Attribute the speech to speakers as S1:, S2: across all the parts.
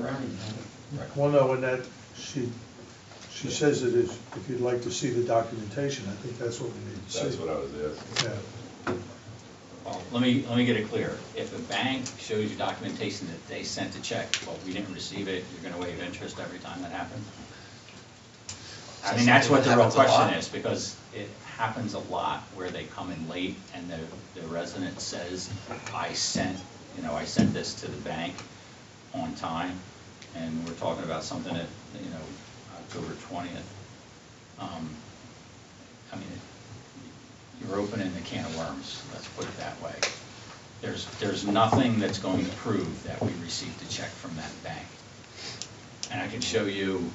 S1: around it.
S2: Well, no, and that, she, she says it is, if you'd like to see the documentation, I think that's what we need to see.
S3: That's what I was asking.
S2: Yeah.
S1: Well, Oh, let me, let me get it clear. If a bank shows you documentation that they sent a check, but we didn't receive it, you're gonna waive interest every time that happens? I mean, that's what the real
S4: Happens a lot.
S1: question is, because it happens a lot where they come in late and the, the resident says, I sent, you know, I sent this to the bank on time, and we're talking about something at, you know, October twentieth. Um, I mean, you're opening the can of worms, let's put it that way. There's, there's nothing that's going to prove that we received a check from that bank. And I can show you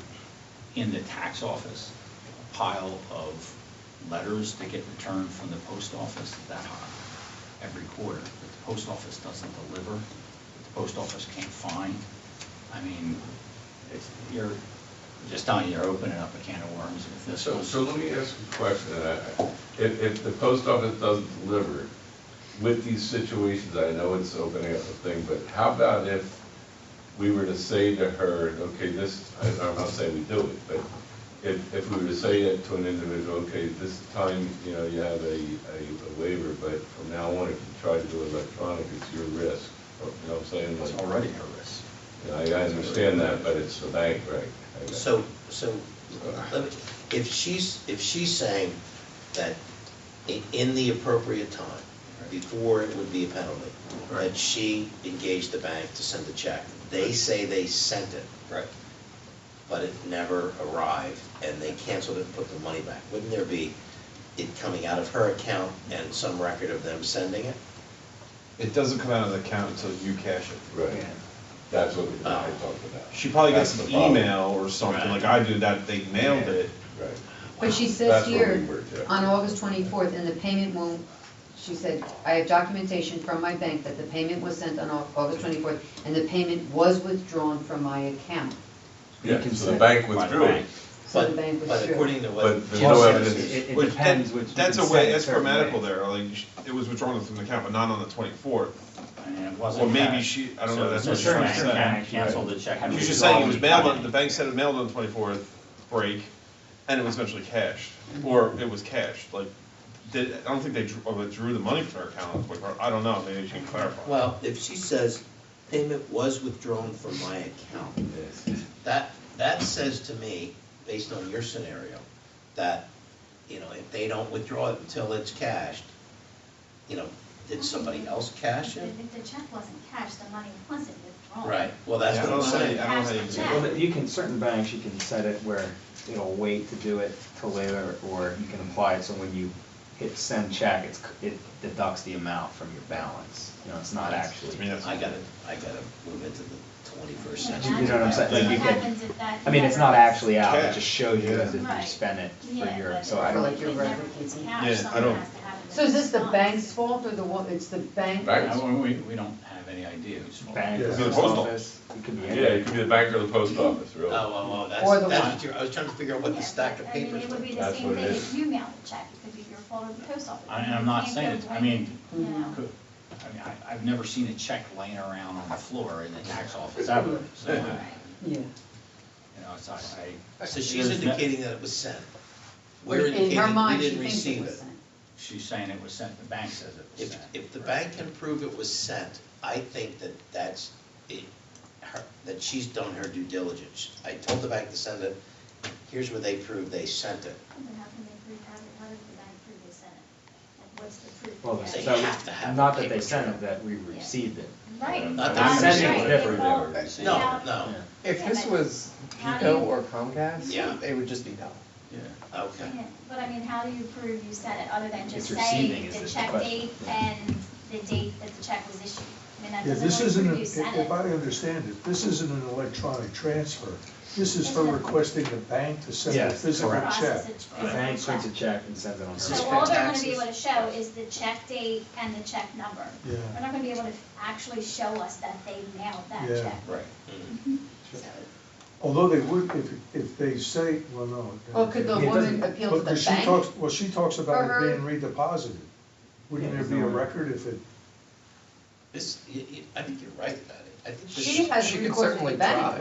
S1: in the tax office, a pile of letters that get returned from the post office that high every quarter, that the post office doesn't deliver, that the post office can't find. I mean, it's, you're, just telling you, you're opening up a can of worms with this.
S3: So,
S1: was-
S3: so let me ask you a question. I- I- If, if the post office doesn't deliver, with these situations, I know it's opening up a thing, but how about if we were to say to her, okay, this, I- I'm not saying we do it, but if, if we were to say that to an individual, okay, this time, you know, you have a, a a waiver, but from now on, if you try to do electronic, it's your risk. You know what I'm saying?
S1: It's
S3: Like,
S1: already a risk.
S3: you know, I I understand that, but it's the bank, right? I got it.
S4: So, so, let me- if she's, if she's saying that i- in the appropriate time, before it would be a penalty, that
S1: Right.
S4: she engaged the bank to send the check, they say they sent it,
S1: Right.
S4: but it never arrived, and they canceled it and put the money back, wouldn't there be it coming out of her account and some record of them sending it?
S5: It doesn't come out of the account until you cash it.
S3: Right, that's what we, I talked about.
S5: She probably gets
S3: That's
S5: an
S3: the problem.
S5: email or something,
S1: Right.
S5: like I did, that they mailed it.
S3: Right.
S6: But she says
S3: That's where we
S6: here,
S3: were, yeah.
S6: on August 24th, and the payment won't, she said, I have documentation from my bank that the payment was sent on Au- August 24th, and the payment was withdrawn from my account.
S3: Yeah,
S7: can
S3: so the
S7: set-
S1: By
S3: bank
S1: the
S3: withdrew it.
S1: bank.
S6: So the
S4: But,
S6: bank was
S4: but
S6: sure.
S4: according to what
S3: But there's
S4: Jim
S3: no
S4: says,
S3: evidence.
S4: it-
S7: It
S5: Which-
S7: depends
S5: that-
S7: which.
S5: That's
S7: you
S5: a
S7: can
S5: way,
S7: say
S5: that's
S7: certain
S5: grammatical
S7: way.
S5: there, like, sh- it was withdrawn from the account, but not on the twenty-fourth.
S1: And it wasn't.
S5: Or maybe
S1: cash.
S5: she- I don't
S1: So
S5: know, that's
S1: the
S5: what she's trying to
S1: bank
S5: say.
S1: can- Canceled the check. and
S5: She's just
S1: withdraw
S5: saying it was
S1: the
S5: mailed, on
S1: money.
S5: the bank said it mailed on the twenty-fourth break, and it was eventually cashed, or it was cashed, like, did, I don't think they drew, withdrew the money from her account on the twenty-fourth, I don't know, maybe you can clarify.
S4: Well, if she says payment was withdrawn from my account, that, that says to me, based on your scenario, that, you know, if they don't withdraw it until it's cashed, you know, did somebody else cash it?
S8: If the check wasn't cashed, the money wasn't withdrawn.
S4: Right, well, that's
S5: Yeah,
S4: what
S5: I
S4: I'm
S5: don't know how you-
S4: saying.
S5: I don't know how you
S8: Cash
S5: do
S8: the
S5: that.
S8: check.
S7: Well, but you can, certain banks, you can set it where it'll wait to do it till later, or you can apply it, so when you hit send check, it's, c- it deducts the amount from your balance. You know, it's not actually.
S5: I mean, that's-
S4: I gotta, I gotta move into the twenty-first
S8: But
S4: century.
S7: You know what I'm saying? Like,
S8: that's
S7: you
S8: What
S7: can-
S8: happens if that?
S7: I mean, it's
S8: never
S7: not
S8: is-
S7: actually out, it
S5: Cash.
S7: just shows you as if you
S8: Right.
S7: spent it for
S8: Yeah,
S7: your,
S8: but
S7: so I don't.
S8: if it never gets cashed,
S5: Yeah, I
S8: something
S5: don't-
S8: has to happen
S6: So is this the
S8: that's
S6: bank's fault or the, wa- it's the bank?
S3: Right.
S1: Yeah, well, We, we don't have any idea. who's fault.
S7: Bank,
S2: Yeah.
S7: post
S5: Postal.
S7: office, it could be
S3: Yeah,
S7: any.
S3: it could be the bank or the post office,
S4: Oh,
S3: really.
S4: oh, oh,
S6: Or the
S4: that's, that's
S6: one.
S4: what you're, I was trying to figure out
S8: not-
S4: what the stack of
S8: Yeah, but, I mean,
S4: papers
S8: it would be
S4: was.
S8: the
S3: That's
S8: same
S3: what
S8: thing
S3: it
S8: if
S3: is.
S8: you mailed a check, it could be your fault or the post office.
S1: I-
S8: You
S1: I'm not
S8: can't
S1: saying
S8: go
S1: it's- I
S8: blame,
S1: mean-
S8: you know.
S1: Could- I mean, I, I've never seen a check laying around on the floor in the tax office ever, so, I- you
S6: Yeah.
S1: know, it's, I, I.
S4: So she's
S1: there's no-
S4: indicating that it was sent.
S6: In
S4: We're
S6: her
S4: indicating we
S6: mind, she
S4: didn't
S6: thinks it
S4: receive
S6: was
S4: it.
S6: sent.
S1: She's saying it was sent, the bank says it was
S4: If,
S1: sent.
S4: if the
S1: Right.
S4: bank can prove it was sent, I think that that's, it, her, that she's done her due diligence. I told the bank to send it, here's where they prove they sent it.
S8: But how can they prove, how, how does the bank prove they sent it? Like, what's the proof?
S7: Well,
S8: that-
S4: They
S7: so,
S4: have to have
S7: not
S4: the
S7: that they
S4: paper
S7: sent
S4: trail.
S7: it, that we received it.
S8: Right.
S4: Not
S8: Right.
S4: that
S7: Sending
S4: it's
S8: Right.
S7: different
S8: Well,
S3: than receiving.
S4: No,
S8: yeah.
S4: no,
S9: If this was
S8: How do
S9: Pico
S8: you-
S9: or Comcast,
S4: Yeah.
S9: it would just be no.
S1: Yeah.
S4: okay.
S8: Yeah, But I mean, how do you prove you sent it, other than
S7: It's
S8: just
S7: receiving
S8: saying
S7: is
S8: the
S7: the
S8: check
S7: question,
S8: date
S7: yeah.
S8: and the date that the check was issued? I mean, that
S2: Yeah, this
S8: doesn't
S2: isn't, an-
S8: really prove you
S2: if
S8: sent
S2: if
S8: it.
S2: I understand it, this isn't an electronic transfer. This is her requesting the bank to send a
S7: Yes,
S2: physical
S7: correct.
S2: check.
S8: Process it-
S7: The bank prints a check and sends it on her.
S8: So
S4: Suspend
S8: all they're gonna be
S4: taxes.
S8: able to show is the check date and the check number.
S2: Yeah.
S8: They're not gonna be able to actually show us that they mailed that
S2: Yeah.
S8: check.
S4: Right. Mm-hmm.
S8: So,
S2: Although they would, if, if they say, well, no.
S6: Well, could the
S2: it doesn't-
S6: woman appeal to
S2: but-
S6: the
S2: 'cause she
S6: bank?
S2: talks- Well, she talks about
S6: For
S2: it being
S6: her-
S2: redeposited. Wouldn't
S7: Yeah,
S2: there
S7: there's
S2: be a
S7: no way.
S2: record if it,
S10: This, y- y- I think you're right about it. I think this
S4: She
S10: is-
S4: has
S6: she could
S4: recourse to the
S6: certainly
S4: bank,
S6: try.